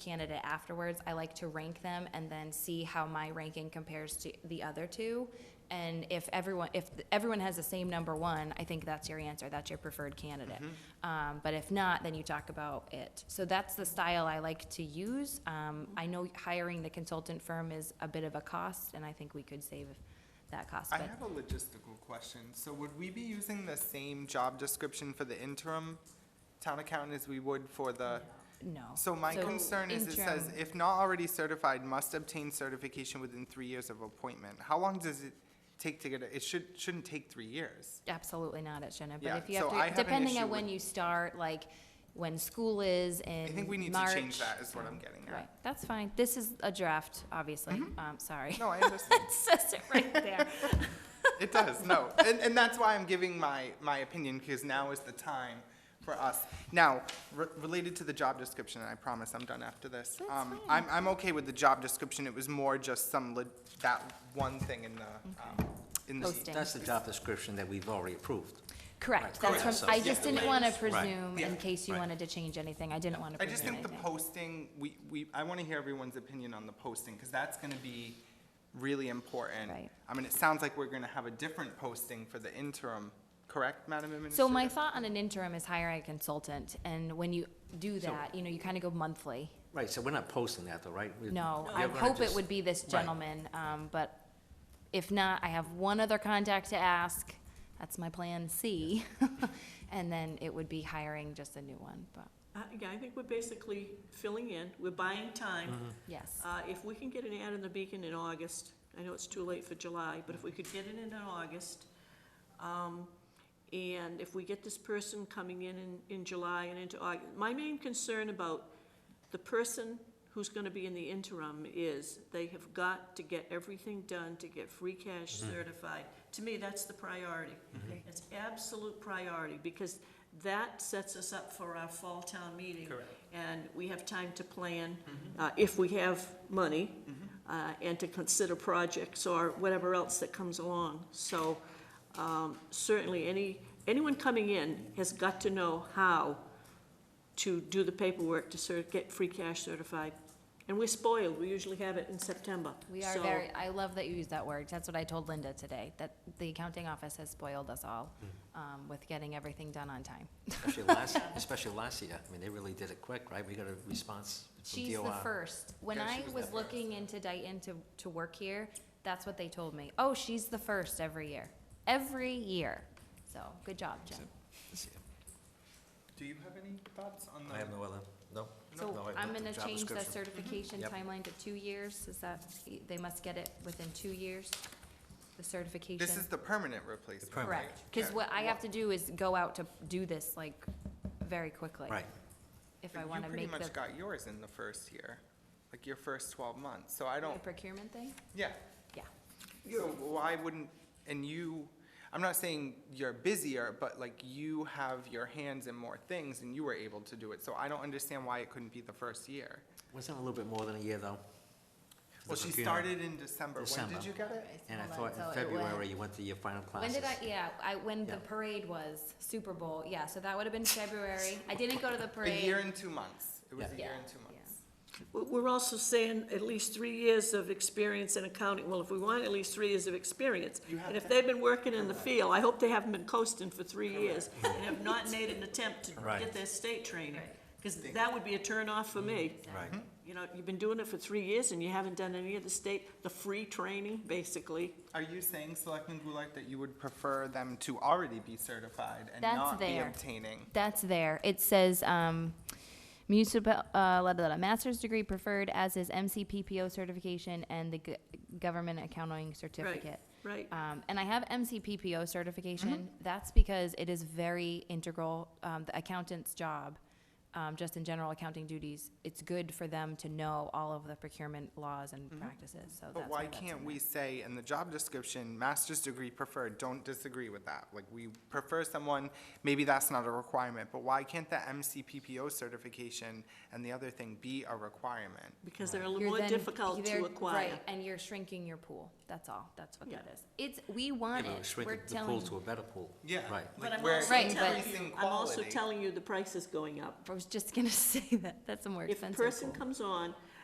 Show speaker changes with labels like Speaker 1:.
Speaker 1: candidate afterwards, I like to rank them and then see how my ranking compares to the other two. And if everyone, if everyone has the same number one, I think that's your answer, that's your preferred candidate.
Speaker 2: Mm-hmm.
Speaker 1: Um, but if not, then you talk about it. So that's the style I like to use. Um, I know hiring the consultant firm is a bit of a cost, and I think we could save that cost,
Speaker 2: I
Speaker 1: but
Speaker 2: have a logistical question. So would we be using the same job description for the interim town accountant as we would for the?
Speaker 1: no.
Speaker 2: So my concern is it says,
Speaker 1: interim-
Speaker 2: if not already certified, must obtain certification within three years of appointment. How long does it take to get, a- it should, shouldn't take three years.
Speaker 1: Absolutely not, it shouldn't, but
Speaker 2: Yeah,
Speaker 1: if you
Speaker 2: so
Speaker 1: have
Speaker 2: I
Speaker 1: to,
Speaker 2: have an
Speaker 1: depending
Speaker 2: issue
Speaker 1: on when
Speaker 2: with-
Speaker 1: you start, like, when school is in
Speaker 2: I
Speaker 1: March.
Speaker 2: think we need to change that is what I'm getting
Speaker 1: Right,
Speaker 2: at. Mm-hmm.
Speaker 1: that's fine, this is a draft, obviously, um, sorry.
Speaker 2: No, I understand.
Speaker 1: It says it right there.
Speaker 2: It does, no. And, and that's why I'm giving my, my opinion, because now is the time for us. Now, re- related to the job description, and I promise I'm done after this.
Speaker 1: That's
Speaker 2: um,
Speaker 1: fine.
Speaker 2: I'm, I'm okay with the job description, it was more just some, lit- that one thing in the, um, in the.
Speaker 1: Posting.
Speaker 3: That's the job description that we've already approved.
Speaker 1: Correct,
Speaker 3: Right,
Speaker 1: that's
Speaker 3: so-
Speaker 1: from, I just didn't wanna presume,
Speaker 2: Yeah.
Speaker 1: in case you
Speaker 3: Right.
Speaker 1: wanted to change anything, I didn't wanna
Speaker 2: I just
Speaker 1: presume
Speaker 2: think the
Speaker 1: anything.
Speaker 2: posting, we, we, I want to hear everyone's opinion on the posting, because that's going to be really important.
Speaker 1: Right.
Speaker 2: I mean, it sounds like we're going to have a different posting for the interim, correct, Madam Administrator?
Speaker 1: So my thought on an interim is hiring a consultant, and when you do that, you know, you kinda go monthly.
Speaker 3: Right, so we're not posting that though, right? We-
Speaker 1: No,
Speaker 3: we're
Speaker 1: I
Speaker 3: gonna
Speaker 1: hope it
Speaker 3: just-
Speaker 1: would be this
Speaker 3: Right.
Speaker 1: gentleman, um, but if not, I have one other contact to ask. That's my plan C. And then it would be hiring just a new one, but,
Speaker 4: Uh, Yeah, I think we're basically filling in, we're buying time.
Speaker 1: yes.
Speaker 4: Uh, If we can get an ad in the Beacon in August, I know it's too late for July, but if we could get it in in August, um, and if we get this person coming in in, in July and into August, my main concern about the person who's gonna be in the interim is they have got to get everything done to get free cash certified. To me, that's the priority. It's absolute priority, because that sets us up for our fall town meeting.
Speaker 2: Correct.
Speaker 4: And we have time to plan, uh, if we have money, uh, and to consider projects or whatever else that comes along. So, um, certainly, any, anyone coming in has got to know how to do the paperwork to cer get free cash certified. And we're spoiled, we usually have it in September.
Speaker 1: We are
Speaker 4: So-
Speaker 1: very, I love that you use that word. That's what I told Linda today, that the accounting office has spoiled us all, um, with getting everything done on time.
Speaker 3: Especially last, especially last year. I mean, they really did it quick, right? We got a response from
Speaker 1: She's the
Speaker 3: DOR.
Speaker 1: first. When
Speaker 2: Yeah,
Speaker 1: I
Speaker 2: she was the
Speaker 1: was
Speaker 2: first.
Speaker 1: looking into Dayton to, to work here, that's what they told me. Oh, she's the first every year, every year. So, good job, Jen.
Speaker 2: Do you have any thoughts on the?
Speaker 3: I have no other, no.
Speaker 1: So
Speaker 3: no, I
Speaker 1: I'm
Speaker 3: looked at
Speaker 1: gonna
Speaker 3: job
Speaker 1: change the
Speaker 3: description.
Speaker 1: certification
Speaker 3: Yep.
Speaker 1: timeline to two years, is that, they must get it within two years, the certification?
Speaker 2: This is the permanent replacement.
Speaker 3: permanent.
Speaker 1: Correct, because
Speaker 2: Yeah.
Speaker 1: what I have to do is go out to do this, like, very quickly.
Speaker 3: Right,
Speaker 1: If
Speaker 2: But
Speaker 1: I wanna
Speaker 2: You
Speaker 1: make
Speaker 2: pretty much
Speaker 1: the
Speaker 2: got yours in the first year, like your first twelve months, so I
Speaker 1: the
Speaker 2: don't,
Speaker 1: procurement thing,
Speaker 2: yeah.
Speaker 1: yeah.
Speaker 2: So why wouldn't, and you, I'm not saying you're busier, but like you have your hands in more things and you were able to do it, so I don't understand why it couldn't be the first year.
Speaker 3: wasn't it a little bit more than a year though? For the
Speaker 2: Well, she
Speaker 3: procurement.
Speaker 2: started in December, when
Speaker 3: December.
Speaker 2: did you get it?
Speaker 3: And I
Speaker 1: Hold on,
Speaker 3: thought in
Speaker 1: so it went-
Speaker 3: February you went to your final
Speaker 1: When
Speaker 3: classes.
Speaker 1: did I, yeah, I, when the
Speaker 3: Yeah.
Speaker 1: parade was, Super Bowl, yeah, so that would have been February. I didn't go to the parade.
Speaker 2: A year and two months, it was a
Speaker 3: Yeah.
Speaker 2: year
Speaker 1: Yeah,
Speaker 2: and two
Speaker 1: yeah.
Speaker 2: months.
Speaker 4: We- We're also saying at least three years of experience in accounting. Well, if we want at least three years of experience.
Speaker 2: You have
Speaker 4: And if
Speaker 2: to-
Speaker 4: they've been working in the field, I hope they haven't been coasting for three years and have not made an attempt to
Speaker 3: Right.
Speaker 4: get their state training. Because
Speaker 2: Right.
Speaker 4: that would be a turnoff for me.
Speaker 3: Right,
Speaker 4: You know, you've been doing it for three years and you haven't done any of the state, the free training, basically.
Speaker 2: Are you saying, Selectman Goulart, that you would prefer them to already be certified and
Speaker 1: That's
Speaker 2: not be
Speaker 1: there.
Speaker 2: obtaining?
Speaker 1: That's there. It says, um, municipal, uh, blah, blah, blah, master's degree preferred, as is MCPPO certification and the g- government accounting certificate.
Speaker 4: Right,
Speaker 1: Um, and I have MCPPO certification. That's because it is very integral, um, the accountant's job, um, just in general accounting duties. It's good for them to know all of the procurement laws and practices, so that's
Speaker 2: But
Speaker 1: why
Speaker 2: why
Speaker 1: that's in
Speaker 2: can't
Speaker 1: there.
Speaker 2: we say in the job description, master's degree preferred, don't disagree with that? Like, we prefer someone, maybe that's not a requirement, but why can't the MCPPO certification and the other thing be a requirement?
Speaker 4: because they're a little
Speaker 1: You're
Speaker 4: more
Speaker 1: then-
Speaker 4: difficult
Speaker 1: they're-
Speaker 4: to acquire.
Speaker 1: Right, and you're shrinking your pool, that's all, that's what that
Speaker 4: Yeah.
Speaker 1: is. It's, we want
Speaker 3: Maybe we
Speaker 1: it,
Speaker 3: shrink
Speaker 1: we're
Speaker 3: the pool
Speaker 1: telling,
Speaker 3: to a better pool. Right.
Speaker 4: But I'm
Speaker 2: we're
Speaker 4: also
Speaker 1: Right, but-
Speaker 4: telling you,
Speaker 2: increasing
Speaker 4: I'm also
Speaker 2: quality.
Speaker 4: telling you the price is going up.
Speaker 1: for was just gonna say that, that's a more
Speaker 4: If a
Speaker 1: expensive
Speaker 4: person
Speaker 1: pool.
Speaker 4: comes on,